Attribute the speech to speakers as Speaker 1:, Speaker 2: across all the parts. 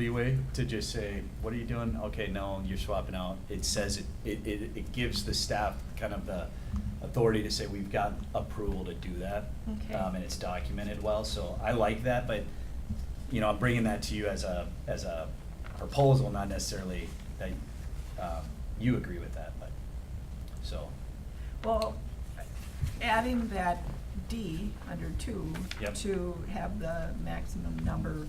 Speaker 1: leeway to just say, what are you doing? Okay, no, you're swapping out. It says, it, it, it it gives the staff kind of the authority to say, we've got approval to do that.
Speaker 2: Okay.
Speaker 1: Um, and it's documented well, so I like that, but, you know, I'm bringing that to you as a, as a proposal, not necessarily that, um, you agree with that, but, so,
Speaker 2: Well, adding that D under two.
Speaker 1: Yep.
Speaker 2: To have the maximum number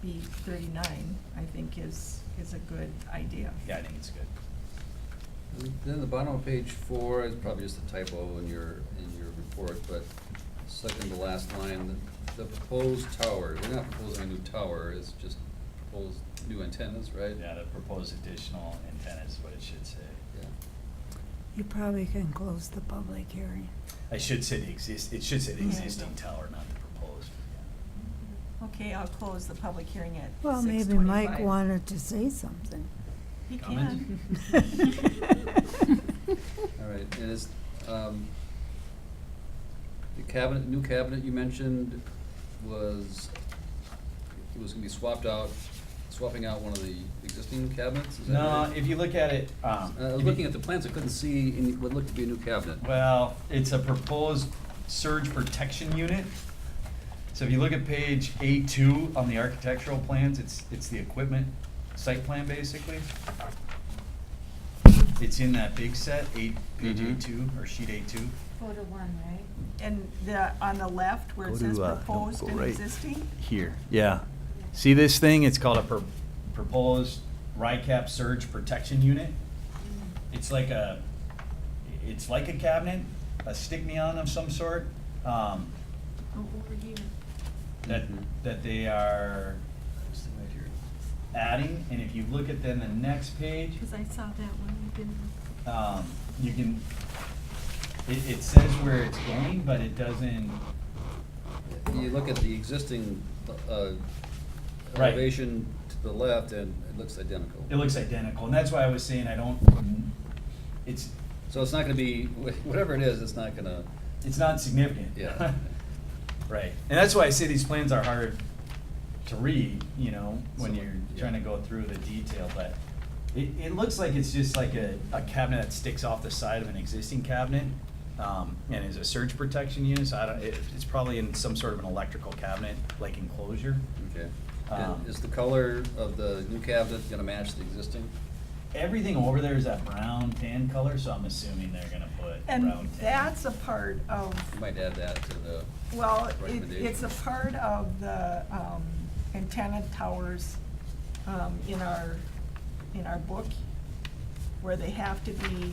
Speaker 2: be thirty-nine, I think is, is a good idea.
Speaker 1: yeah, I think it's good.
Speaker 3: Then the bottom of page four is probably just a typo in your, in your report, but second to last line, the- the proposed tower, we're not proposing a new tower, it's just proposed new antennas, right?
Speaker 1: Yeah, the proposed additional antenna is what it should say.
Speaker 3: Yeah.
Speaker 4: You probably can close the public hearing.
Speaker 1: I should say the exist, it should say the
Speaker 2: Yeah.
Speaker 1: existing tower, not the proposed.
Speaker 2: Okay, I'll close the public hearing at six
Speaker 4: Well, maybe Mike wanted to say something.
Speaker 2: He can.
Speaker 1: Comment?
Speaker 3: All right, and is, um, the cabinet, new cabinet you mentioned was, it was gonna be swapped out, swapping out one of the existing cabinets, is that
Speaker 1: No,
Speaker 3: right?
Speaker 1: if you look at it, um.
Speaker 3: Uh, I was looking at the plans, I couldn't see any, what looked to be a new cabinet.
Speaker 1: Well, it's a proposed surge protection unit. So if you look at page A two on the architectural plans, it's, it's the equipment site plan basically. It's in that big set, eight, page A
Speaker 3: Mhm.
Speaker 1: two, or sheet A two.
Speaker 5: Four to one, right?
Speaker 2: And the, on the left where
Speaker 1: Go
Speaker 2: it says
Speaker 1: to, uh, no,
Speaker 2: proposed
Speaker 1: go
Speaker 2: and
Speaker 1: right.
Speaker 2: existing,
Speaker 1: Here, yeah. See this thing? It's called a pr- proposed RICAP surge protection unit.
Speaker 5: Mm.
Speaker 1: It's like a, it's like a cabinet, a stick-me-on of some sort, um,
Speaker 5: Oh, Over here.
Speaker 1: that, that they are adding. And if you look at then the next page,
Speaker 5: Because I saw that one, you didn't.
Speaker 1: um, you can, it, it says where it's going, but it doesn't,
Speaker 3: You look at the existing uh,
Speaker 1: Right.
Speaker 3: elevation to the left, and it looks identical.
Speaker 1: it looks identical. And that's why I was saying I don't, it's,
Speaker 3: So it's not gonna be, wh- whatever it is, it's not gonna,
Speaker 1: it's not significant.
Speaker 3: Yeah.
Speaker 1: Right, and that's why I say these plans are hard to read, you know, when
Speaker 3: So,
Speaker 1: you're
Speaker 3: yeah.
Speaker 1: trying to go through the detail, but it, it looks like it's just like a, a cabinet that sticks off the side of an existing cabinet, um, and is a surge protection unit, so I don't, it, it's probably in some sort of an electrical cabinet, like enclosure.
Speaker 3: okay.
Speaker 1: Um,
Speaker 3: And is the color of the new cabinet gonna match the existing?
Speaker 1: Everything over there is that brown tan color, so I'm assuming they're gonna put brown
Speaker 2: and
Speaker 1: tan.
Speaker 2: that's a part of
Speaker 3: You might add that to the,
Speaker 2: Well, it,
Speaker 3: Recommendation.
Speaker 2: it's a part of the, um, antenna towers, um, in our, in our book, where they have to be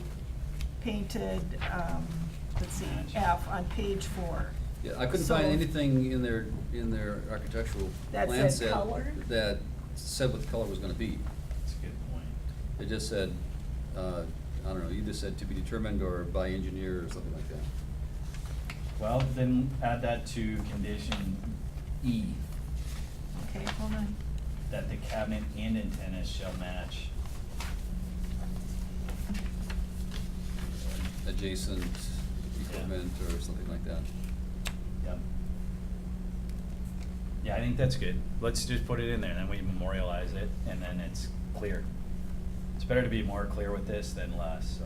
Speaker 2: painted, um, let's see,
Speaker 1: Match.
Speaker 2: F on page four.
Speaker 3: yeah, I couldn't find
Speaker 2: So-
Speaker 3: anything in their, in their architectural
Speaker 2: That
Speaker 3: plan
Speaker 2: said
Speaker 3: set
Speaker 2: color?
Speaker 3: that said what the color was gonna be.
Speaker 1: That's a good point.
Speaker 3: It just said, uh, I don't know, either said to be determined or by engineer or something like that.
Speaker 1: Well, then add that to condition E.
Speaker 2: Okay, hold on.
Speaker 1: that the cabinet and antennas shall match.
Speaker 3: Adjacent equipment or something like that.
Speaker 1: Yep. Yeah, I think that's good. Let's just put it in there, then we memorialize it, and then it's clear. It's better to be more clear with this than less, so.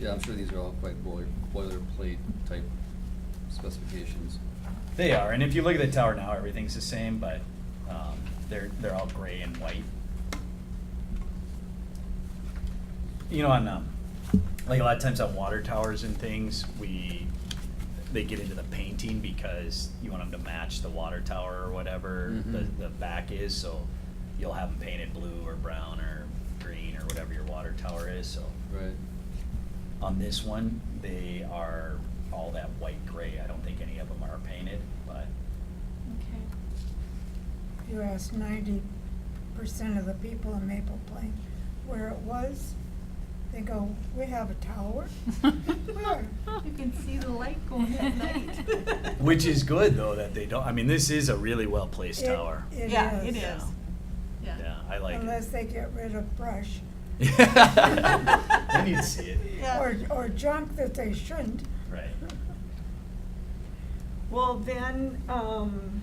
Speaker 3: Yeah, I'm sure these are all quite boiler, boilerplate type specifications.
Speaker 1: They are, and if you look at the tower now, everything's the same, but, um, they're, they're all gray and white. You know, on, um, like a lot of times on water towers and things, we, they get into the painting because you want them to match the water tower or whatever the,
Speaker 3: Mhm.
Speaker 1: the back is, so you'll have them painted blue or brown or green or whatever your water tower is, so.
Speaker 3: Right.
Speaker 1: On this one, they are all that white gray. I don't think any of them are painted, but
Speaker 5: Okay.
Speaker 4: You asked ninety percent of the people in Maple Plain where it was. They go, we have a tower. Where?
Speaker 2: You can see the light going at night.
Speaker 1: which is good though that they don't. I mean, this is a really well placed tower.
Speaker 4: It is.
Speaker 2: Yeah, it
Speaker 1: Yeah.
Speaker 2: is.
Speaker 1: yeah, I like
Speaker 4: Unless they get rid of brush
Speaker 1: it. I need to see it.
Speaker 2: Yeah.
Speaker 4: or, or junk that they shouldn't.
Speaker 1: Right.
Speaker 2: Well, then, um,